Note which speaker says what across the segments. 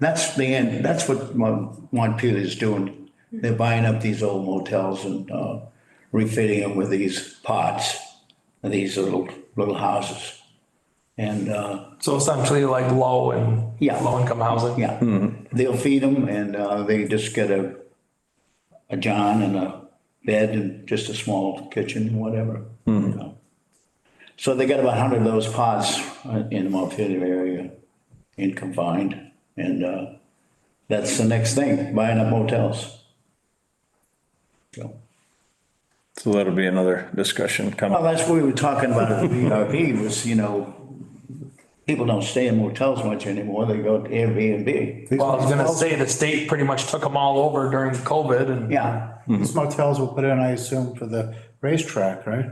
Speaker 1: That's the end, that's what Mon- Montpelier is doing. They're buying up these old motels and uh, refitting them with these pods, these little, little houses. And, uh,
Speaker 2: So essentially like low and.
Speaker 1: Yeah.
Speaker 2: Low income housing.
Speaker 1: yeah, they'll feed them and uh, they just get a, a john and a bed and just a small kitchen, and whatever. you know. So they got about 100 of those pods uh, in the Montpelier area in confined. And uh, that's the next thing, buying up hotels. So,
Speaker 3: So that'll be another discussion coming.
Speaker 1: Well, that's what we were talking about at the VRP was, you know, people don't stay in motels much anymore. They go to Airbnb.
Speaker 2: Well, I was gonna say the state pretty much took them all over during COVID and.
Speaker 1: Yeah.
Speaker 4: These
Speaker 1: Mm-hmm.
Speaker 4: motels will put in, I assume, for the racetrack, right?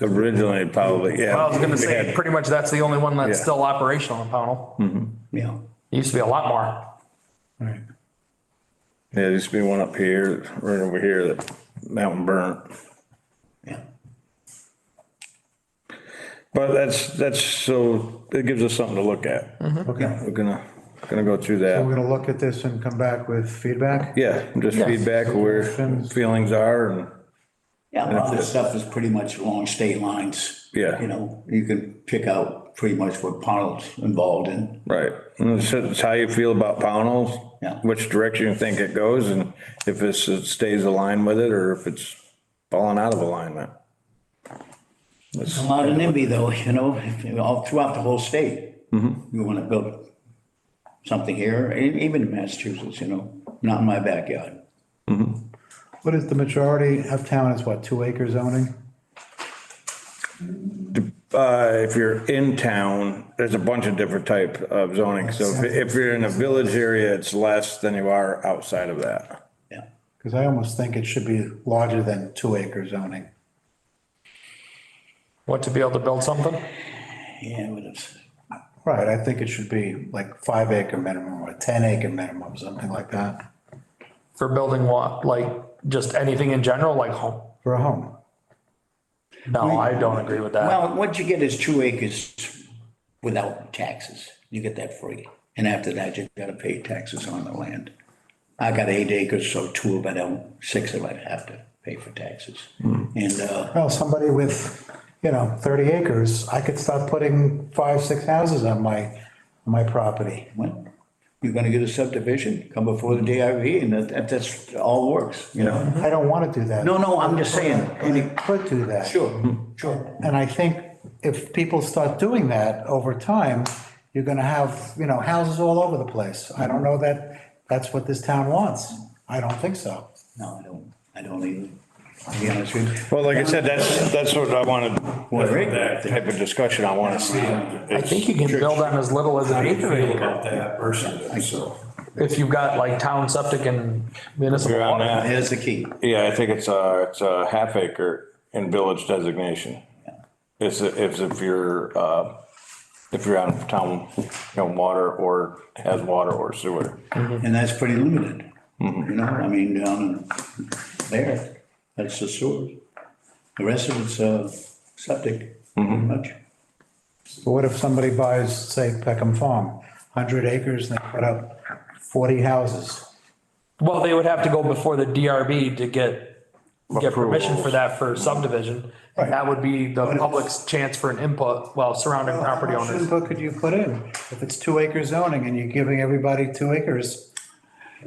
Speaker 3: Originally, probably, yeah.
Speaker 2: Well, I was gonna
Speaker 3: They
Speaker 2: say,
Speaker 3: had-
Speaker 2: pretty much that's the only one that's
Speaker 3: Yeah.
Speaker 2: still operational in Pownell.
Speaker 1: Yeah.
Speaker 2: It Used to be a lot more.
Speaker 4: Right.
Speaker 3: Yeah, there used to be one up here, right over here, that mountain burnt.
Speaker 1: Yeah.
Speaker 3: But that's, that's, so it gives us something to look at.
Speaker 2: Mm-hmm.
Speaker 4: Okay.
Speaker 3: We're gonna, gonna go through
Speaker 4: We're
Speaker 3: that.
Speaker 4: gonna look at this and come back with feedback.
Speaker 3: Yeah, just
Speaker 2: Yes.
Speaker 3: feedback where feelings are and,
Speaker 1: Yeah, a lot of this stuff is pretty much along state lines.
Speaker 3: Yeah.
Speaker 1: You know, you can pick out pretty much what Pownell's involved in.
Speaker 3: right. And it's, it's how you feel about Pownell's.
Speaker 1: Yeah.
Speaker 3: Which direction you think it goes and if it's, it stays aligned with it or if it's falling out of alignment.
Speaker 1: A lot of NIMBY though, you know, all throughout the whole state. You want to build something here, e- even in Massachusetts, you know, not in my backyard.
Speaker 4: What is the majority of town is what, two acre zoning?
Speaker 3: Uh, if you're in town, there's a bunch of different type of zoning. So if, if you're in a village area, it's less than you are outside of that.
Speaker 1: Yeah.
Speaker 4: Because I almost think it should be larger than two acre zoning.
Speaker 2: What, to be able to build something?
Speaker 1: Yeah, but it's,
Speaker 4: Right, I think it should be like five acre minimum or 10 acre minimum, something like that,
Speaker 2: For building what? Like just anything in general, like home?
Speaker 4: for a home.
Speaker 2: No, I don't agree with that.
Speaker 1: well, what you get is two acres without taxes. You get that free. And after that, you gotta pay taxes on the land. I got eight acres, so two of it, I'll- six of it I have to pay for taxes. And, uh,
Speaker 4: Well, somebody with, you know, 30 acres, I could start putting five, six houses on my, my property.
Speaker 1: Well, you're gonna get a subdivision, come before the DRV, and that- that, that's, all works, you know?
Speaker 4: I don't want to do that.
Speaker 1: No, no, I'm just saying,
Speaker 4: They
Speaker 1: any,
Speaker 4: could do that.
Speaker 1: sure, sure.
Speaker 4: And I think if people start doing that over time, you're gonna have, you know, houses all over the place. I don't know that that's what this town wants. I don't think so.
Speaker 1: No, I don't, I don't either, to be honest with you.
Speaker 3: Well, like I said, that's, that's what I wanted,
Speaker 1: Well,
Speaker 3: that type of discussion I want to see.
Speaker 2: I think you can build on as little as an acre
Speaker 5: about that personally, so.
Speaker 2: if you've got like town septic and municipal.
Speaker 3: You're on
Speaker 2: water.
Speaker 3: that.
Speaker 1: There's the key.
Speaker 3: Yeah, I think it's a, it's a half acre in village designation. It's, a- it's if you're, uh, if you're on town, you know, water or has water or sewer.
Speaker 1: And that's pretty limited, you know, I mean, down in there, that's the sewer. The rest of it's, uh, septic, pretty much.
Speaker 4: But what if somebody buys, say, Peckham Farm, hundred acres, and they put up forty houses?
Speaker 2: Well, they would have to go before the DRB to get, get permission for that for subdivision. And That would be the public's chance for an input, well, surrounding property
Speaker 4: How much
Speaker 2: owners.
Speaker 4: input could you put in? If it's two acre zoning and you're giving everybody two acres,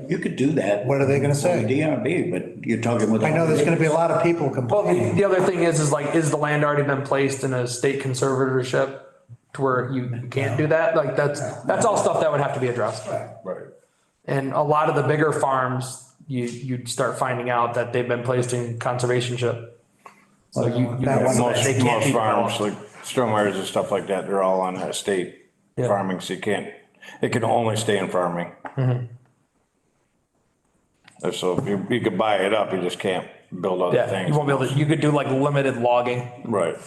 Speaker 1: You could do that.
Speaker 4: What are they gonna say?
Speaker 1: With DRB, but you're talking with.
Speaker 4: I know there's gonna be a lot of people
Speaker 2: Well,
Speaker 4: complaining.
Speaker 2: the, the other thing is, is like, is the land already been placed in a state conservatorship to where you can't do that? Like, that's, that's all stuff that would have to be addressed.
Speaker 3: Right.
Speaker 2: And a lot of the bigger farms, you, you'd start finding out that they've been placed in conservationship. So you, you
Speaker 4: That
Speaker 2: know,
Speaker 4: one-
Speaker 2: so that
Speaker 3: Most,
Speaker 2: they can't
Speaker 3: most
Speaker 2: be
Speaker 3: farms,
Speaker 2: developed.
Speaker 3: like stormwares and stuff like that, they're all on that state
Speaker 2: Yeah.
Speaker 3: farming, so you can't, it can only stay in farming.
Speaker 2: Mm-hmm.
Speaker 3: Uh, So if you, you could buy it up, you just can't build other
Speaker 2: Yeah, you
Speaker 3: things.
Speaker 2: won't be able to, you could do like limited logging.
Speaker 3: Right.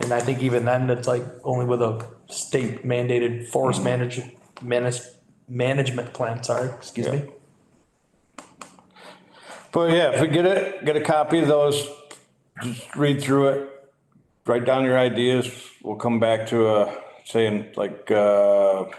Speaker 2: And I think even then, it's like only with a state mandated forest manage, manage, management plan, sorry, excuse me.
Speaker 3: But yeah, if we get it, get a copy of those, just read through it, write down your ideas. We'll come back to, uh, saying like, uh,